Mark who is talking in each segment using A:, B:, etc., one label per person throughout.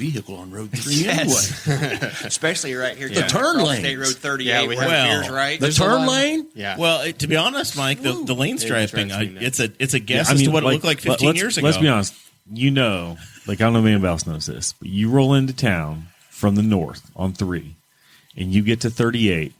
A: vehicle on Road 3 anyway.
B: especially right here.
A: The
B: coming
A: turn
B: across
A: lanes.
B: State Road 38,
C: Yeah, we
B: where
C: have-
B: it
C: Well,
B: veers right.
A: The
C: There's a
A: turn
C: lot of-
A: lane?
C: Yeah.
D: Well, it, to be honest, Mike, the, the lane striping,
C: stripes
D: I,
C: doing that.
D: it's a it's a guess
E: I
D: as
E: mean,
D: to what it looked like
E: let-
D: 15
E: let's-
D: years ago.
E: Let's be honest. You know, like I don't know if anybody else knows this, but you roll into town from the north on three, and you get to thirty eight.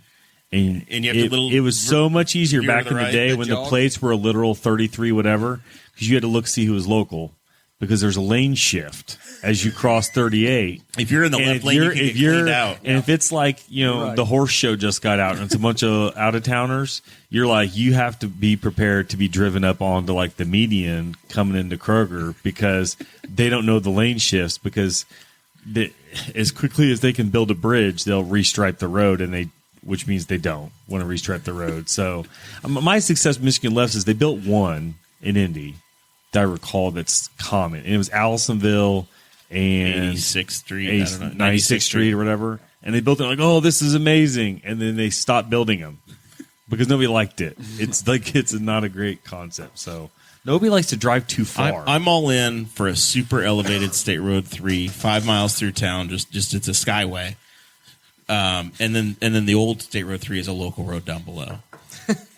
E: And,
D: And you have to
E: it,
D: little
E: it was so much easier
D: veer to
E: back
D: the
E: in the
D: right,
E: day
D: the
E: when
B: jog.
E: the plates were a literal 33 whatever because you had to look see who was local because there's a lane shift as you cross 38
D: If you're in the
E: and
D: left
E: if
D: lane, you
E: you're,
D: can
E: if
D: get
E: you're
D: cleaned out.
E: and if it's like you know the horse show just got out and it's a bunch of out of towners, you're like you have to be prepared to be driven up onto like the median coming into Kroger because they don't know the lane shifts because the, as quickly as they can build a bridge, they'll restripe the road and they. Which means they don't want to restripe the road. So, um, my success with Michigan lefts is they built one in Indy that I recall that's common, and it was Allisonville and
D: 86th Street, I don't know,
E: 96th, 96th Street or whatever. And they built it like, oh, this is amazing. And then they stopped building them because nobody liked it. It's like, it's not a great concept. So nobody likes to drive too far.
D: I'm, I'm all in for a super elevated State Road Three, five miles through town. Just just it's a skyway, um, and then and then the old State Road Three is a local road down below.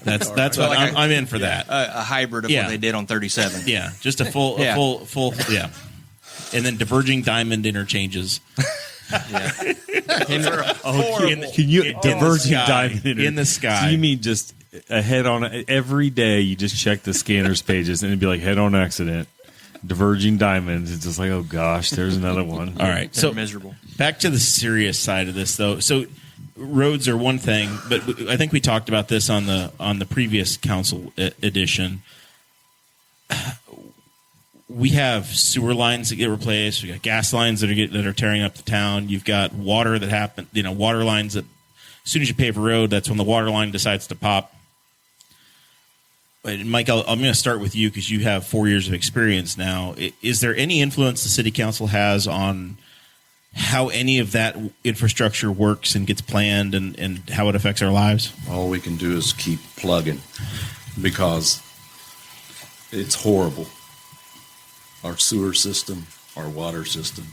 D: That's that's what
B: Like
D: I'm,
B: I-
D: I'm in for that.
B: a, a hybrid of
D: Yeah.
B: what they did on 37.
D: Yeah, just a full
B: Yeah.
D: a full full yeah, and then diverging diamond interchanges.
E: oh,
D: in the-
E: can you
D: in the
E: diverging
D: sky.
E: diamond
D: In the sky.
E: So you mean just ahead on every day? You just check the scanners pages and it'd be like head on accident, diverging diamonds. It's just like, oh gosh, there's another one.
D: All right,
B: They're
D: so
B: miserable.
D: back to the serious side of this though so roads are one thing but w- i think we talked about this on the on the previous council e- edition we have sewer lines that get replaced we got gas lines that are get, that are tearing up the town you've got water that happen you know water lines that as soon as you pave a road that's when the water line decides to pop but Mike, I'll, I'm going to start with you because you have four years of experience now. I- Is there any influence the city council has on how any of that infrastructure works and gets planned and, and how it affects our lives.
F: all we can do is keep plugging because it's horrible. Our sewer system, our water system,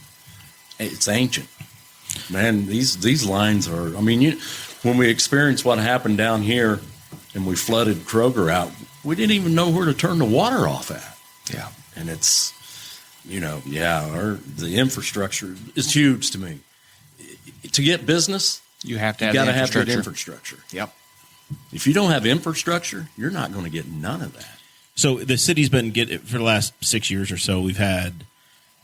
F: it's ancient. Man, these these lines are. I mean, you, when we experienced what happened down here, and we flooded Kroger out, we didn't even know where to turn the water off at. Yeah, and it's, you know, yeah, our the infrastructure is huge to me. To get business,
B: You have to
F: you
B: have
F: got to
B: the
F: have good
B: infrastructure.
F: infrastructure.
B: Yep.
F: If you don't have infrastructure, you're not going to get none of that.
D: So the city's been get for the last six years or so. We've had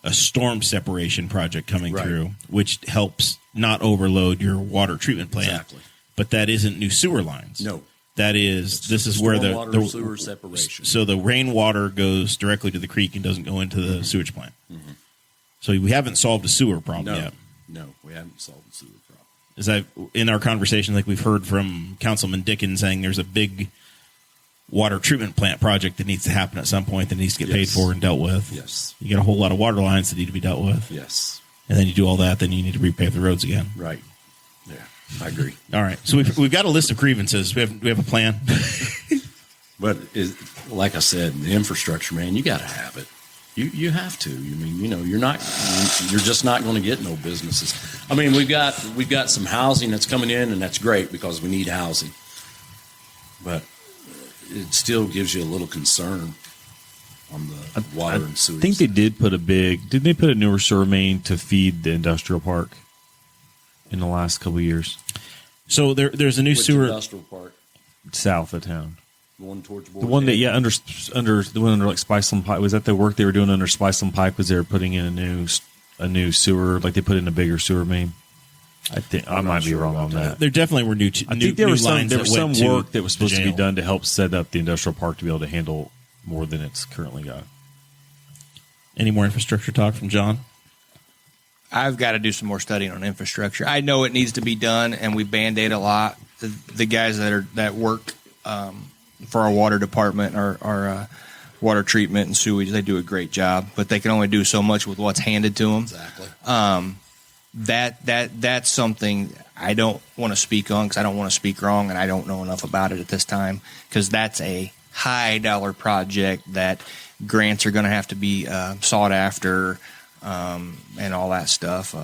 D: a storm separation project coming
F: Right.
D: through, which helps not overload your water treatment plant.
F: Exactly.
D: But that isn't new sewer lines.
F: No.
D: that is this is where the,
F: Stormwater
D: the
F: sewer separation.
D: So the rainwater goes directly to the creek and doesn't go into
F: Mm-hmm.
D: the sewage plant. So we haven't solved a sewer problem
F: No,
D: yet.
F: no, we haven't solved the sewer problem.
D: as I in our conversation, like we've heard from Councilman Dickens saying there's a big water treatment plant project that needs to happen at some point that needs to get paid
F: Yes.
D: for and dealt with.
F: Yes,
D: You get a whole lot of water lines that need to be dealt with.
F: yes,
D: And then you do all that, then you need to repave the roads again.
F: right. Yeah, I agree.
D: All right. So we've, we've got a list of grievances. We have we have a plan.
F: But it, like I said, the infrastructure, man, you got to have it. You you have to. You mean you know you're not you're just not going to get no businesses. I mean we've got we've got some housing that's coming in and that's great because we need housing, but it still gives you a little concern on the water and sewer.
E: I think they did put a big. Didn't they put a newer sewer main to feed the industrial park in the last couple of years
D: So there there's a new
F: Which
D: sewer.
F: industrial park
E: south of town?
F: going towards
E: The one that yeah under under the one under like Spiceland Pike was that the work they were doing under Spiceland Pike was they were putting in a new s- a new sewer like they put in a bigger sewer main. I think I might be wrong on that.
D: There definitely were new. T-
E: I
D: new,
E: think there
D: new
E: was some
D: lines
E: there
D: that
E: was some
D: went
E: work that was supposed to be
D: jail.
E: done to help set up the industrial park to be able to handle more than it's currently got.
D: Any more infrastructure talk from John?
B: I've got to do some more studying on infrastructure. I know it needs to be done, and we band aid a lot. The, the guys that are that work um, for our water department, our, our uh, water treatment and sewage, they do a great job, but they can only do so much with what's handed to them.
F: exactly.
B: that that that's something I don't want to speak on because I don't want to speak wrong and I don't know enough about it at this time because that's a high dollar project that grants are going to have to be uh, sought after. um, and all that stuff.